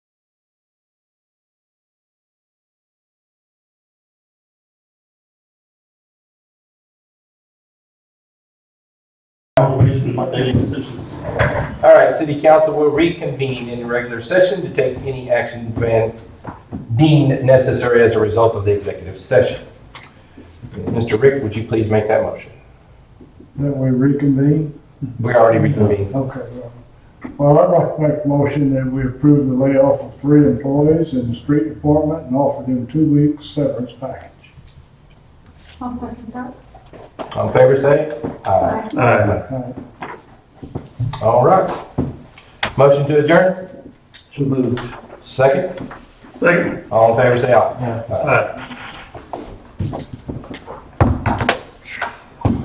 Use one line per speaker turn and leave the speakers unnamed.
any decisions.
All right, city council will reconvene in regular session to take any action when deemed necessary as a result of the executive session. Mr. Rick, would you please make that motion?
That we reconvene?
We already reconvened.
Okay, well, well, I'd like to make a motion that we approve the layoff of three employees in the street department and offer them two weeks severance package.
I'll second that.
All in favor, say aye.
Aye.
Uh,
All right. Motion to adjourn?
So moved.
Second?
Second.
All in favor, say aye.
Aye.